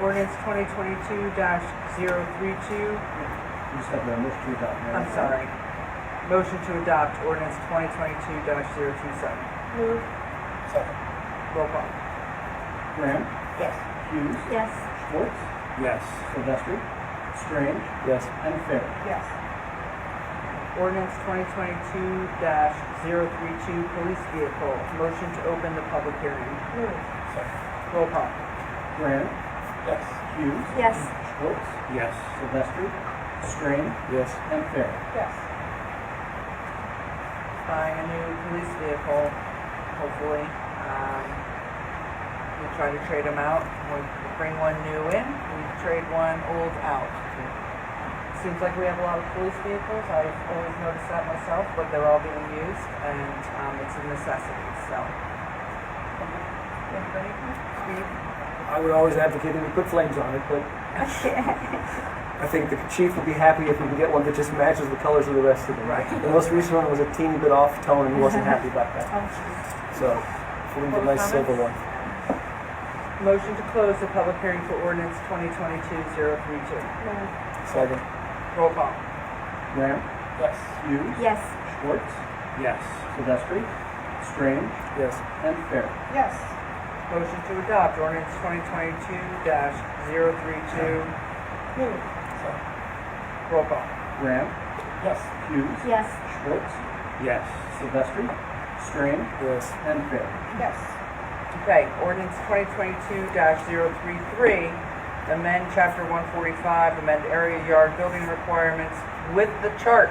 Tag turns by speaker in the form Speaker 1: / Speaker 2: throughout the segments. Speaker 1: ordinance twenty twenty-two 32
Speaker 2: You said the motion to adopt. Madam
Speaker 1: I'm sorry. Motion to adopt ordinance twenty twenty-two 27
Speaker 3: Move.
Speaker 2: Second.
Speaker 1: Roll call.
Speaker 2: Graham.
Speaker 1: Yes.
Speaker 2: Hughes.
Speaker 3: Yes.
Speaker 2: Schwartz.
Speaker 4: Yes.
Speaker 2: Sylvester. Strange.
Speaker 4: Yes.
Speaker 2: And Fair.
Speaker 1: Yes. Ordinance twenty twenty-two 32 police vehicle. Motion to open the public hearing.
Speaker 3: Move.
Speaker 1: Roll call.
Speaker 2: Graham. Yes. Hughes.
Speaker 3: Yes.
Speaker 2: Schwartz.
Speaker 4: Yes.
Speaker 2: Sylvester. Strange.
Speaker 4: Yes.
Speaker 2: And Fair.
Speaker 1: Yes. Buying a new police vehicle, hopefully. Um, we try to trade them out. We bring one new in, we trade one old out. Seems like we have a lot of police vehicles. I've always noticed that myself, but they're all being used and, um, it's a necessity, so. Anybody? Steve?
Speaker 4: I would always advocate that we put flames on it, but I think the chief would be happy if we can get one that just matches the colors of the rest of them.
Speaker 1: Right.
Speaker 4: The most recent one was a teeny bit off tone, and he wasn't happy about that. So, if we can get a nice silver one.
Speaker 1: Motion to close the public hearing for ordinance twenty twenty-two zero three two.
Speaker 3: Move.
Speaker 4: Second.
Speaker 1: Roll call.
Speaker 2: Graham.
Speaker 4: Yes.
Speaker 2: Hughes.
Speaker 3: Yes.
Speaker 2: Schwartz.
Speaker 4: Yes.
Speaker 2: Sylvester. Strange.
Speaker 4: Yes.
Speaker 2: And Fair.
Speaker 1: Yes. Motion to adopt ordinance twenty twenty-two dash zero three two.
Speaker 3: Move.
Speaker 1: Roll call.
Speaker 2: Graham. Yes. Hughes.
Speaker 3: Yes.
Speaker 2: Schwartz.
Speaker 4: Yes.
Speaker 2: Sylvester. Strange.
Speaker 4: Yes.
Speaker 2: And Fair.
Speaker 1: Yes. Okay, ordinance twenty twenty-two dash zero three three, amend chapter one forty-five, amend area yard building requirements with the chart.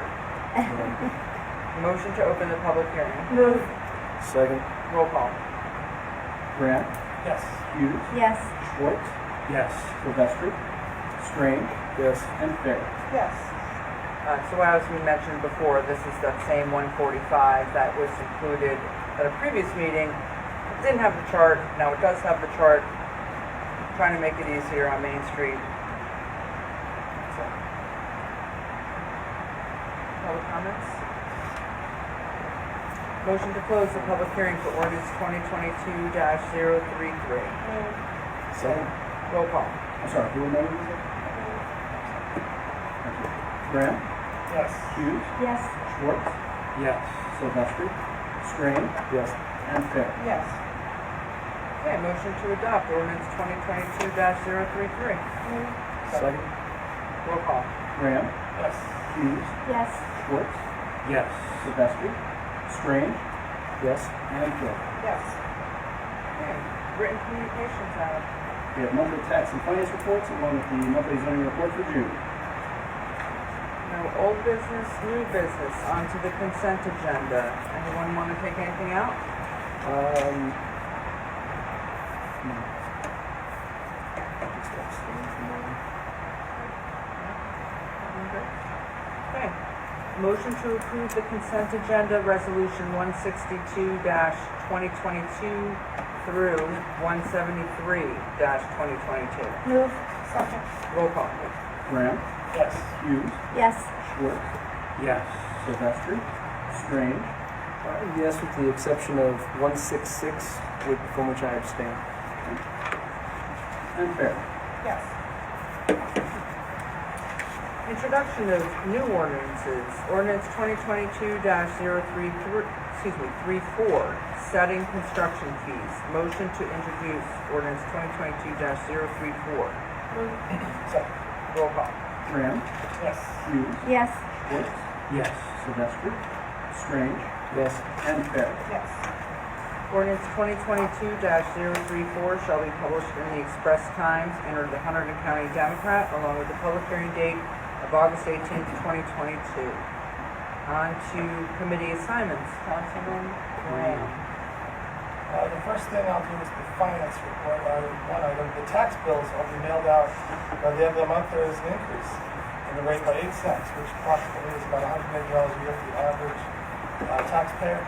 Speaker 1: Motion to open the public hearing.
Speaker 3: Move.
Speaker 4: Second.
Speaker 1: Roll call.
Speaker 2: Graham.
Speaker 4: Yes.
Speaker 2: Hughes.
Speaker 3: Yes.
Speaker 2: Schwartz.
Speaker 4: Yes.
Speaker 2: Sylvester. Strange.
Speaker 4: Yes.
Speaker 2: And Fair.
Speaker 1: Yes. Uh, so as we mentioned before, this is that same one forty-five that was included at a previous meeting. It Didn't have the chart, now it does have the chart, trying to make it easier on Main Street. So. Public comments? Motion to close the public hearing for ordinance twenty twenty-two 33
Speaker 3: Move.
Speaker 4: Second.
Speaker 1: Roll call.
Speaker 2: I'm sorry, who remembered this? Thank you. Graham.
Speaker 4: Yes.
Speaker 2: Hughes.
Speaker 3: Yes.
Speaker 2: Schwartz.
Speaker 4: Yes.
Speaker 2: Sylvester. Strange.
Speaker 4: Yes.
Speaker 2: And Fair.
Speaker 1: Yes. Okay, motion to adopt ordinance twenty twenty-two 33
Speaker 3: Move.
Speaker 4: Second.
Speaker 1: Roll call.
Speaker 2: Graham.
Speaker 4: Yes.
Speaker 2: Hughes.
Speaker 3: Yes.
Speaker 2: Schwartz.
Speaker 4: Yes.
Speaker 2: Sylvester. Strange.
Speaker 4: Yes.
Speaker 2: And Fair.
Speaker 1: Yes. Okay, written communications out.
Speaker 2: We have monthly tax and finance reports along with the monthly zoning report for June.
Speaker 1: No old business, new business, onto the consent agenda. Anyone want to take anything out?
Speaker 4: Um.
Speaker 1: Okay. Motion to approve the consent agenda, resolution one sixty-two twenty twenty-two through one seventy-three twenty twenty-two.
Speaker 3: Move. Second.
Speaker 1: Roll call.
Speaker 2: Graham.
Speaker 4: Yes.
Speaker 2: Hughes.
Speaker 3: Yes.
Speaker 2: Schwartz.
Speaker 4: Yes.
Speaker 2: Sylvester. Strange.
Speaker 4: Uh, Yes, with the exception of 166, which- from which I abstain.
Speaker 2: And Fair.
Speaker 1: Yes. Introduction of new ordinances. Ordinance twenty twenty-two 33 excuse me, three four, setting construction fees. Motion to introduce ordinance twenty twenty-two 34
Speaker 3: Move.
Speaker 1: Roll call.
Speaker 2: Graham.
Speaker 4: Yes.
Speaker 2: Hughes.
Speaker 3: Yes.
Speaker 2: Schwartz.
Speaker 4: Yes.
Speaker 2: Sylvester. Strange.
Speaker 4: Yes.
Speaker 2: And Fair.
Speaker 1: Yes. Ordinance twenty twenty-two 34 shall be published in the Express Times, entered the Hunterdon County Democrat, along with the public hearing date of August eighteenth, twenty twenty-two. On to committee assignments, Councilman Graham.
Speaker 5: Uh, the first thing I'll do is the finance report, uh, one item, the tax bills will be mailed out, by the end of the month, there is an increase in the rate by eight cents, which approximately is about hundred and eighty dollars a year for the average, uh, taxpayer.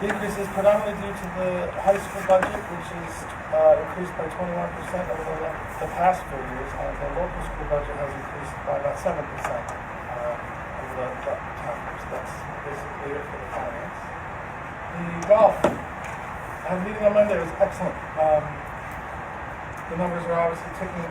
Speaker 5: The increase is predominantly due to the high school budget, which is, uh, increased by twenty-one percent over the, the past four years, and the local school budget has increased by about seven percent, uh, over the, the time, so that's basically it for the finance. The golf, our meeting on Monday was excellent. Um, the numbers are obviously ticking